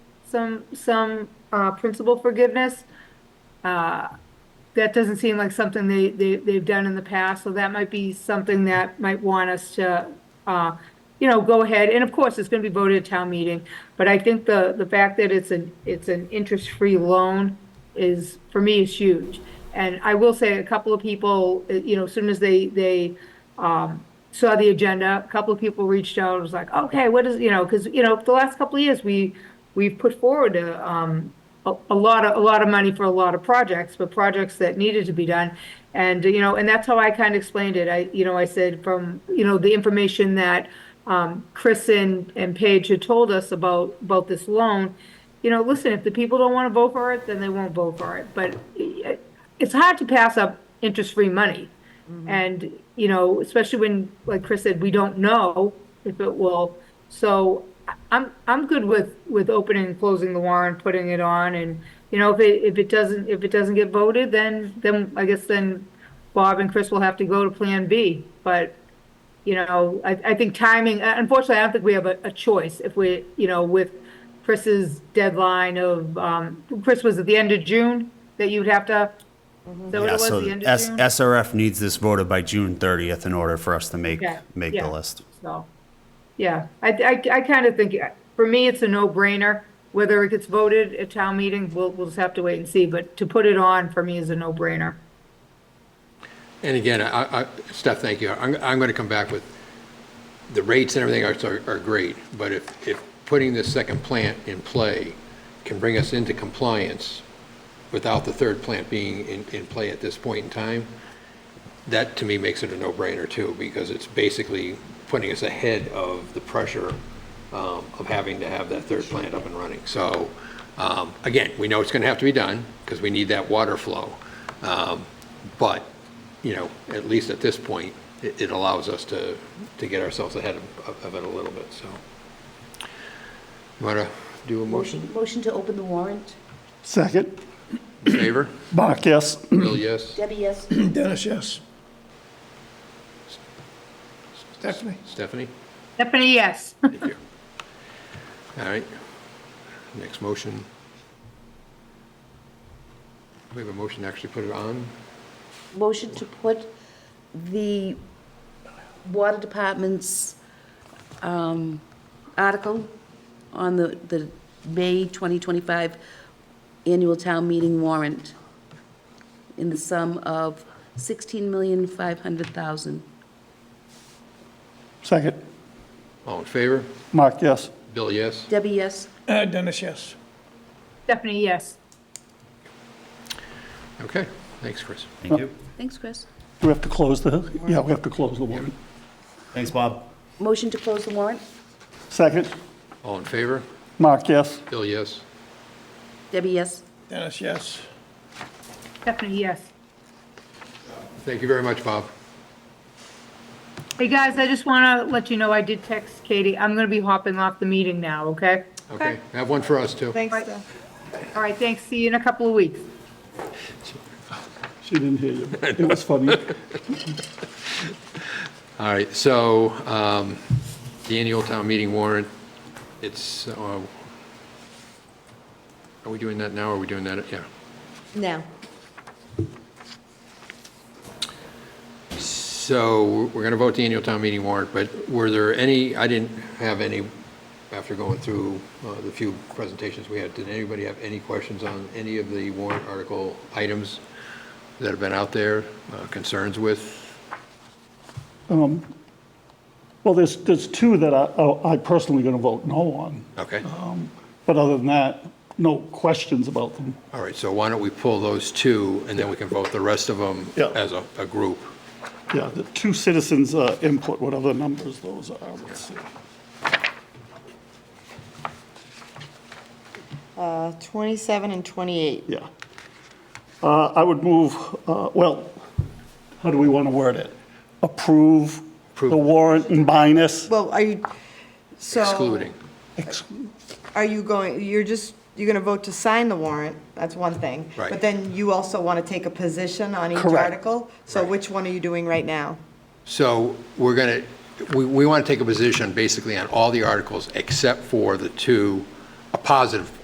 some, some uh, principal forgiveness. Uh, That doesn't seem like something they, they, they've done in the past, so that might be something that might want us to, uh, you know, go ahead, and of course, it's gonna be voted at town meeting, but I think the, the fact that it's an, it's an interest-free loan is, for me, is huge. And I will say, a couple of people, eh, you know, as soon as they, they, um, saw the agenda, a couple of people reached out, and was like, okay, what is, you know, because, you know, the last couple of years, we, we've put forward a, um, a, a lot of, a lot of money for a lot of projects, but projects that needed to be done. And, you know, and that's how I kind of explained it. I, you know, I said from, you know, the information that, um, Chris and, and Paige had told us about, about this loan, you know, listen, if the people don't want to vote for it, then they won't vote for it. But eh, it's hard to pass up interest-free money. And, you know, especially when, like Chris said, we don't know if it will. So I- I'm, I'm good with, with opening and closing the warrant, putting it on and, you know, if it, if it doesn't, if it doesn't get voted, then, then I guess then Bob and Chris will have to go to Plan B. But, you know, I, I think timing, uh, unfortunately, I don't think we have a, a choice if we, you know, with Chris's deadline of, um, Chris was at the end of June that you'd have to, is that what Yeah, it was, so the end of S- June? SRF needs this voted by June 30th in order for us to make, Yeah, make the yeah. list. So, yeah, I, I, I kind of think, uh, for me, it's a no-brainer. Whether it gets voted at town meeting, we'll, we'll just have to wait and see, but to put it on for me is a no-brainer. And again, I, I, Steph, thank you. I'm, I'm going to come back with, the rates and everything are, are great, but if, if putting this second plant in play can bring us into compliance without the third plant being in, in play at this point in time, that to me makes it a no-brainer too, because it's basically putting us ahead of the pressure um, of having to have that third plant up and running. So, um, again, we know it's going to have to be done, because we need that water flow. Um, But, you know, at least at this point, it, it allows us to, to get ourselves ahead of, of it a little bit, so. Want to do a motion, Motion to open the warrant. Second. favor? Bach, yes. Bill, yes? Debbie, yes. Dennis, yes. Stephanie? Stephanie? Stephanie, yes. Thank you. All right. Next motion. We have a motion to actually put it on. Motion to put the water department's um, article on the, the May 2025 annual town meeting warrant in the sum of 16500000 Second. All in favor? Mark, yes. Bill, yes? Debbie, yes. Uh, Dennis, yes. Stephanie, yes. Okay, thanks, Chris. Thank you. Thanks, Chris. Do we have to close the, yeah, we have to close the warrant. Thanks, Bob. Motion to close the warrant. Second. All in favor? Mark, yes. Bill, yes? Debbie, yes. Dennis, yes. Stephanie, yes. Thank you very much, Bob. Hey, guys, I just want to let you know I did text Katie. I'm going to be hopping off the meeting now, okay? Okay, have one for us, too. Thanks, Steph. All right, thanks. See you in a couple of weeks. She didn't hear you. It was funny. All right, so um, the annual town meeting warrant, it's, uh, are we doing that now, or are we doing that, yeah? Now. So we're going to vote the annual town meeting warrant, but were there any, I didn't have any, after going through uh, the few presentations we had, did anybody have any questions on any of the warrant article items that have been out there, uh, concerns with? Well, there's, there's two that I, oh, I personally going to vote no on. Okay, But other than that, no questions about them. all right, so why don't we pull those two, and then we can vote the rest of them Yeah. as a, a group? Yeah, the two citizens uh, input, whatever numbers those are. Let's see. Uh, 27 and 28. Yeah. Uh, I would move, uh, well, how do we want to word it? Approve the warrant and minus. Well, are you, so. Excluding. Exclude. Are you going, you're just, you're going to vote to sign the warrant, that's one thing. Right. But then you also want to take a position on each Correct. article? So which one are you doing right now? So we're going to, we, we want to take a position basically on all the articles except for the two, a positive